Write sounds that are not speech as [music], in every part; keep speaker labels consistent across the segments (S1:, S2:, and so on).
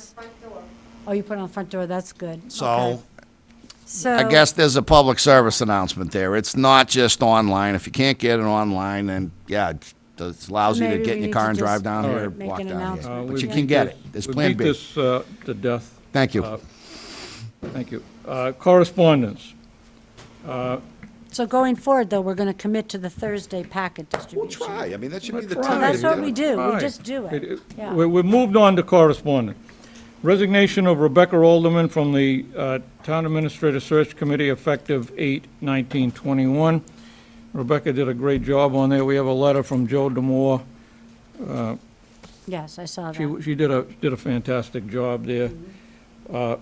S1: front door.
S2: Oh, you put it on the front door, that's good.
S3: So
S2: Okay. Oh. So.
S3: I guess there's a public service announcement there. It's not just online. If you can't get it online, then yeah, it's- it's lousy to
S2: Maybe
S3: get
S2: we
S3: in your
S2: need
S3: car
S2: to
S3: and drive
S2: just
S3: down here, or
S2: make
S3: walk
S2: an
S3: down
S2: announcement.
S3: here.
S2: Uh,
S3: But
S2: we
S3: you
S2: beat
S3: can get it. There's Plan
S4: We
S3: B.
S4: beat this uh, to death.
S3: Thank you.
S4: Uh, Thank you. Uh, Correspondence.
S2: So going forward, though, we're going to commit to the Thursday packet
S3: We'll
S2: distribution.
S3: try. I mean, that should be the
S4: We'll
S2: So
S3: time.
S4: try.
S2: that's what we do, we
S4: Aye.
S2: just do it, yeah.
S4: We, we moved on to correspondence. Resignation of Rebecca Alderman from the uh, Town Administrator Search Committee effective 8/19/21. Rebecca did a great job on there. We have a letter from Joe Demore.
S2: Yes, I saw that.
S4: She, she did a, did a fantastic job there. Uh,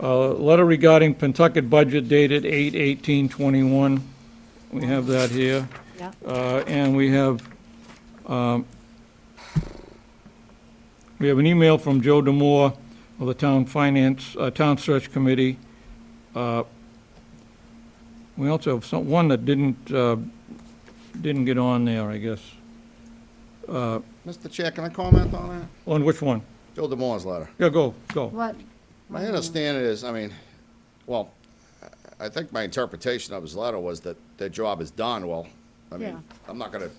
S4: uh, Letter regarding Pentucket budget dated 8/18/21. We have that here.
S2: Yeah.
S4: Uh, And we have, um, we have an email from Joe Demore of the Town Finance, uh, Town Search Committee. Uh, We also have some, one that didn't, uh, didn't get on there, I guess.
S3: Mr. Chair, can I comment on that?
S4: On which one?
S3: Joe DeMore's letter.
S4: Yeah, go, go.
S2: What,
S3: My
S2: Mm-hmm.
S3: understanding is, I mean, well, I I think my interpretation of his letter was that their job is done. Well, I mean,
S2: Yeah.
S3: I'm not gonna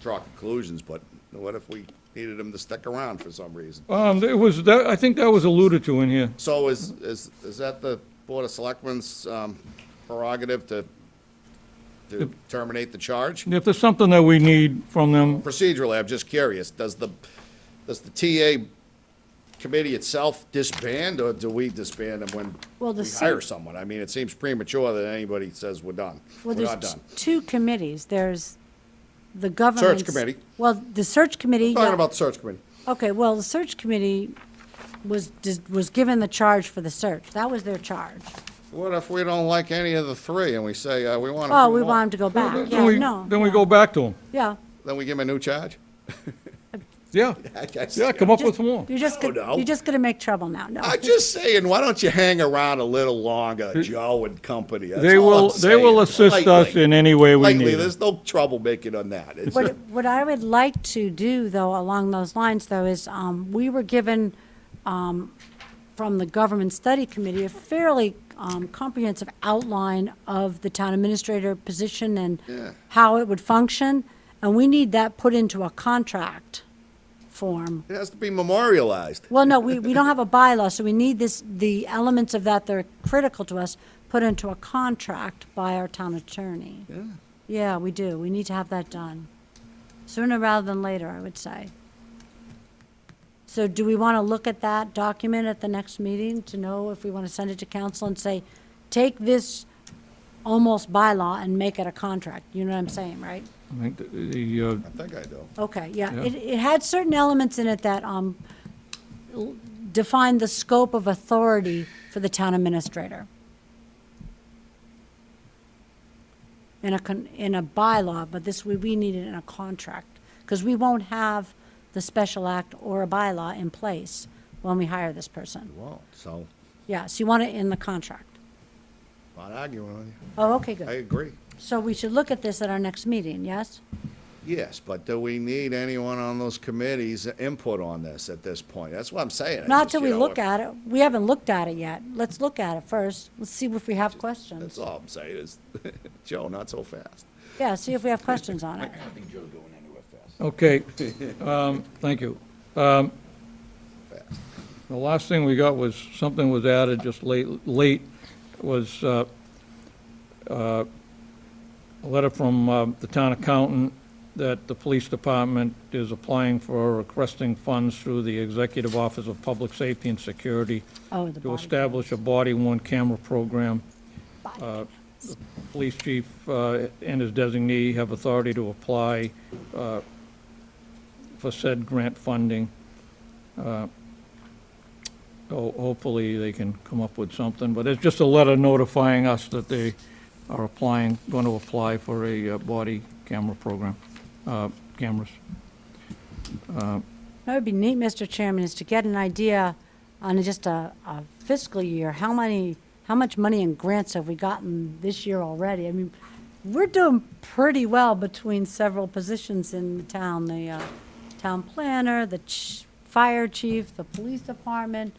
S3: draw conclusions, but what if we needed him to stick around for some reason?
S4: Um, It was, that I think that was alluded to in here.
S3: So is, is, is that the Board of Selectmen's um, prerogative to, to terminate the charge?
S4: If there's something that we need from them,
S3: Procedurally, I'm just curious, does the, does the TA committee itself disband, or do we disband them when
S2: Well, the
S3: we
S2: se-
S3: hire someone? I mean, it seems premature that anybody says we're done. We're
S2: well,
S3: not
S2: there's
S3: done.
S2: two committees, there's the government.
S3: committee.
S2: Well, the search committee.
S3: Talking
S2: yeah.
S3: about the search committee.
S2: Okay, well, the search committee was, dis- was given the charge for the search, that was their charge.
S3: What if we don't like any of the three, and we say, uh, we want a
S2: Oh,
S3: few
S2: we
S3: more?
S2: want him to go back,
S4: then
S2: yeah,
S4: we,
S2: no.
S4: then we
S2: yeah.
S4: go back to them.
S2: Yeah.
S3: Then we give them a new charge?
S4: Yeah,
S3: I guess.
S4: yeah, come up with
S2: Just-
S4: some more.
S2: You're just,
S3: No,
S2: go-
S3: no.
S2: you're just gonna make trouble now, no.
S3: [laughs] I'm just saying, why don't you hang around a little longer, Joe and company? That's
S4: They
S3: all
S4: will,
S3: I'm
S4: they will
S3: saying.
S4: assist us
S3: Lightly.
S4: in any way we
S3: Lightly,
S4: need. it.
S3: there's no trouble making on that. It's-
S2: What, what I would like to do, though, along those lines, though, is, um, we were given, um, from the Government Study Committee, a fairly, um, comprehensive outline of the town administrator position and
S3: Yeah.
S2: how it would function, and we need that put into a contract form.
S3: It has to be memorialized.
S2: Well, no, we, we don't have a bylaw, so we need this, the elements of that that are critical to us, put into a contract by our town attorney. Yeah. we do. We need to have that done. Sooner rather than later, I would say. So do we want to look at that document at the next meeting to know if we want to send it to council and say, take this almost bylaw and make it a contract? You know what I'm saying, right?
S4: I think the- the, uh,
S3: I think I do.
S2: Okay, yeah,
S4: Yeah.
S2: it, it had certain elements in it that, um, l- defined the scope of authority for the town administrator. In a con, in a bylaw, but this, we, we need it in a contract, because we won't have the special act or a bylaw in place when we hire this person.
S3: Well, so,
S2: Yeah, so you want it in the contract.
S3: not arguing on you.
S2: Oh, okay,
S3: I
S2: good.
S3: agree.
S2: So we should look at this at our next meeting, yes?
S3: Yes, but do we need anyone on those committees' input on this at this point? That's what I'm saying. I
S2: Not
S3: just,
S2: till
S3: you
S2: we
S3: know,
S2: look
S3: if-
S2: at it. We haven't looked at it yet. Let's look at it first. Let's see if we have
S3: That's
S2: questions.
S3: all I'm saying is, [laughs] Joe, not so fast.
S2: Yeah, see if we have questions on it.
S4: okay, um, thank you. Um,
S3: Fast.
S4: The last thing we got was, something was added just late, late, was uh, uh, a letter from uh, the town accountant that the police department is applying for requesting funds through the Executive Office of Public Safety and Security
S2: Oh, the
S4: to
S2: body.
S4: establish a body-worn camera program. Uh, the Police chief uh, and his designee have authority to apply uh, for said grant funding. Uh, So hopefully they can come up with something, but it's just a letter notifying us that they are applying, going to apply for a uh, body camera program, uh, cameras.
S2: That would be neat, Mr. Chairman, is to get an idea on just a, a fiscal year, how many, how much money in grants have we gotten this year already? I mean, we're doing pretty well between several positions in the town, the, uh, town planner, the ch- fire chief, the police department,